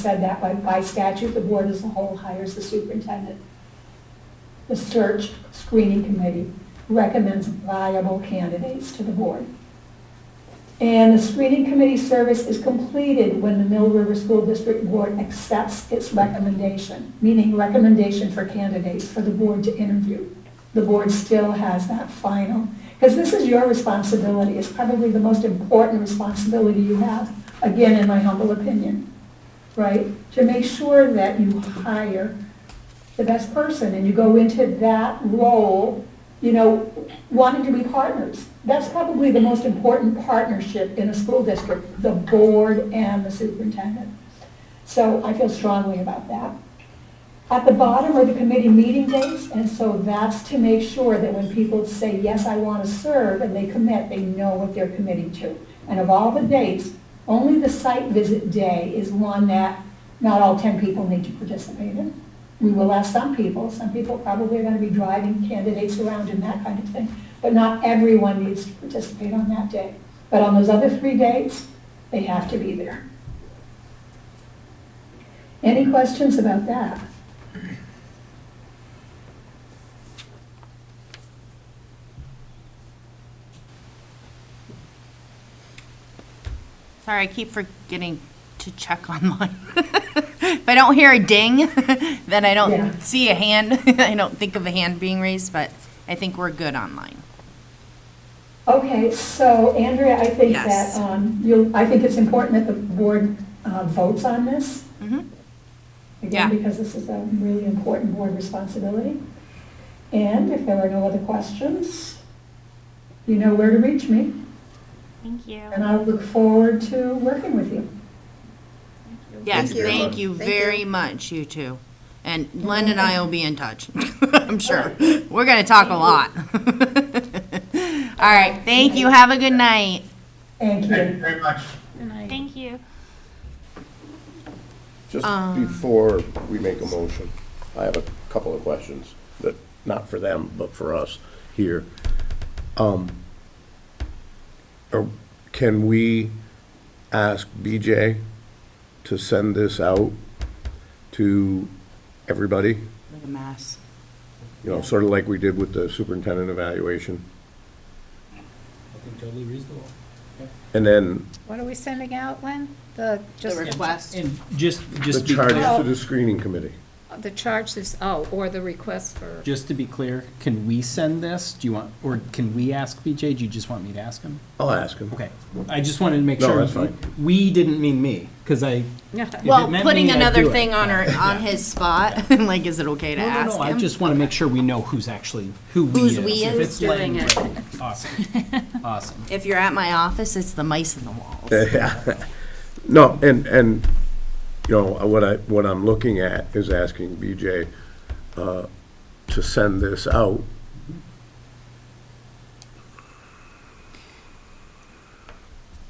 said that by, by statute, the board as a whole hires the superintendent. The search screening committee recommends viable candidates to the board. And the screening committee service is completed when the Mill River School District Board accepts its recommendation, meaning recommendation for candidates for the board to interview. The board still has that final, because this is your responsibility, it's probably the most important responsibility you have, again, in my humble opinion, right? To make sure that you hire the best person and you go into that role, you know, wanting to be partners. That's probably the most important partnership in a school district, the board and the superintendent. So I feel strongly about that. At the bottom are the committee meeting dates, and so that's to make sure that when people say, yes, I want to serve, and they commit, they know what they're committing to. And of all the dates, only the site visit day is one that not all 10 people need to participate in. We will ask some people, some people probably are going to be driving candidates around and that kind of thing, but not everyone needs to participate on that day. But on those other three dates, they have to be there. Any questions about that? Sorry, I keep forgetting to check online. If I don't hear a ding, then Yeah. I don't see a hand, I don't think of a hand being raised, but I think we're good online. Okay, so Andrea, I think that, Yes. um, you, I think it's important that the board uh, votes on this. Mhm. Yeah. Again, because this is a really important board responsibility. And if there are no other questions, you know where to reach me, Thank you. and I look forward to working with you. Yes, Thank you. thank you Thank you. very much, you two. And Len and I will be in touch, I'm sure. We're gonna talk a lot. All right, thank you, have a good night. Thank Thank you. you very much. Thank you. Just Um, before we make a motion, I have a couple of questions that, not for them, but for us here. Um, are- Can we ask BJ to send this out to everybody? What a mess. You know, sort of like we did with the superintendent evaluation? Totally reasonable. And then What are we sending out, Len? The, just, And just, the just charges because, to the screening committee? the charge is, oh, or the request for, just to be clear, can we send this? Do you want, or can we ask BJ? Do you just want me to ask him? I'll ask him. Okay, I just wanted to make No, sure. that's fine. We didn't mean me, because I. if it Well, meant putting me, I'd another do it. thing on her, on his spot, like, is it okay to No, no, ask no, I him? just want to make sure we know who's actually, who we is. Who's we If is it's Lang, great. Awesome, awesome. If you're at my office, it's the mice in the walls. No, and, and, you know, what I, what I'm looking at is asking BJ uh, to send this out.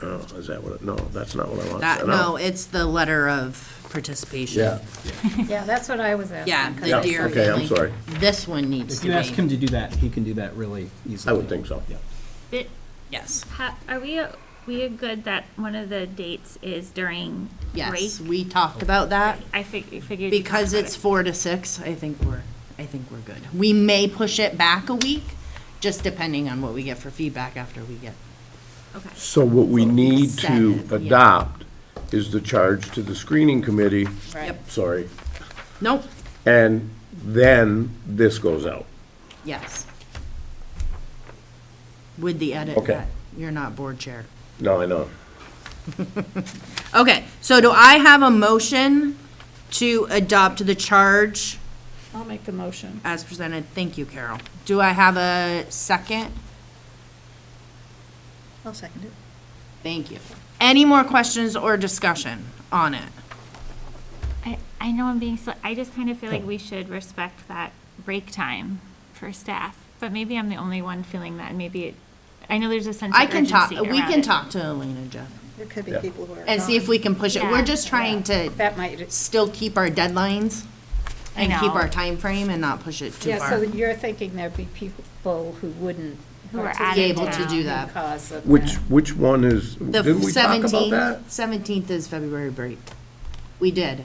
Oh, is that what, it- no, that's not what I want to That, send no, out. it's the letter of participation. Yeah, yeah, that's what I was asking. Yeah, yeah, the deer. okay, I'm thing. sorry. This one needs If you ask to him to do that, he can do that really I easily. would think so. Yeah. be. Yes, Ha- Are we, we good that one of the dates is during break? yes, we talked about that. I fig- I figured. you Because talked about it's four to six, I think we're, I think we're good. We may push it back a week, just depending on what we get for feedback after we get. it. Okay. So what we need to Send it, yeah. adopt is the charge to the screening committee, Yep. sorry, Nope, and then this goes out. yes. With the edit Okay. that you're not board chair. No, I know. Okay, so do I have a motion to adopt the charge I'll make the motion. as presented? Thank you, Carol. Do I have a second? I'll second it. Thank you. Any more questions or discussion on it? I, I know I'm being, sli- I just kind of feel like we should respect that break time for staff, but maybe I'm the only one feeling that, and maybe, it- I know there's a sense of I can urgency talk, we around can it. talk to Elena, Jeff, There could be Yeah. people who are. and see if we can push it. We're Yeah. just trying to That might, still keep our deadlines I and keep know. our time frame and not push it too yeah, far. so you're thinking there'd be people who wouldn't. Who are participate Be able to do Yeah. that. Because of Which, that. which one is, The didn't we talk about seventeenth, that? seventeenth is February break. We did.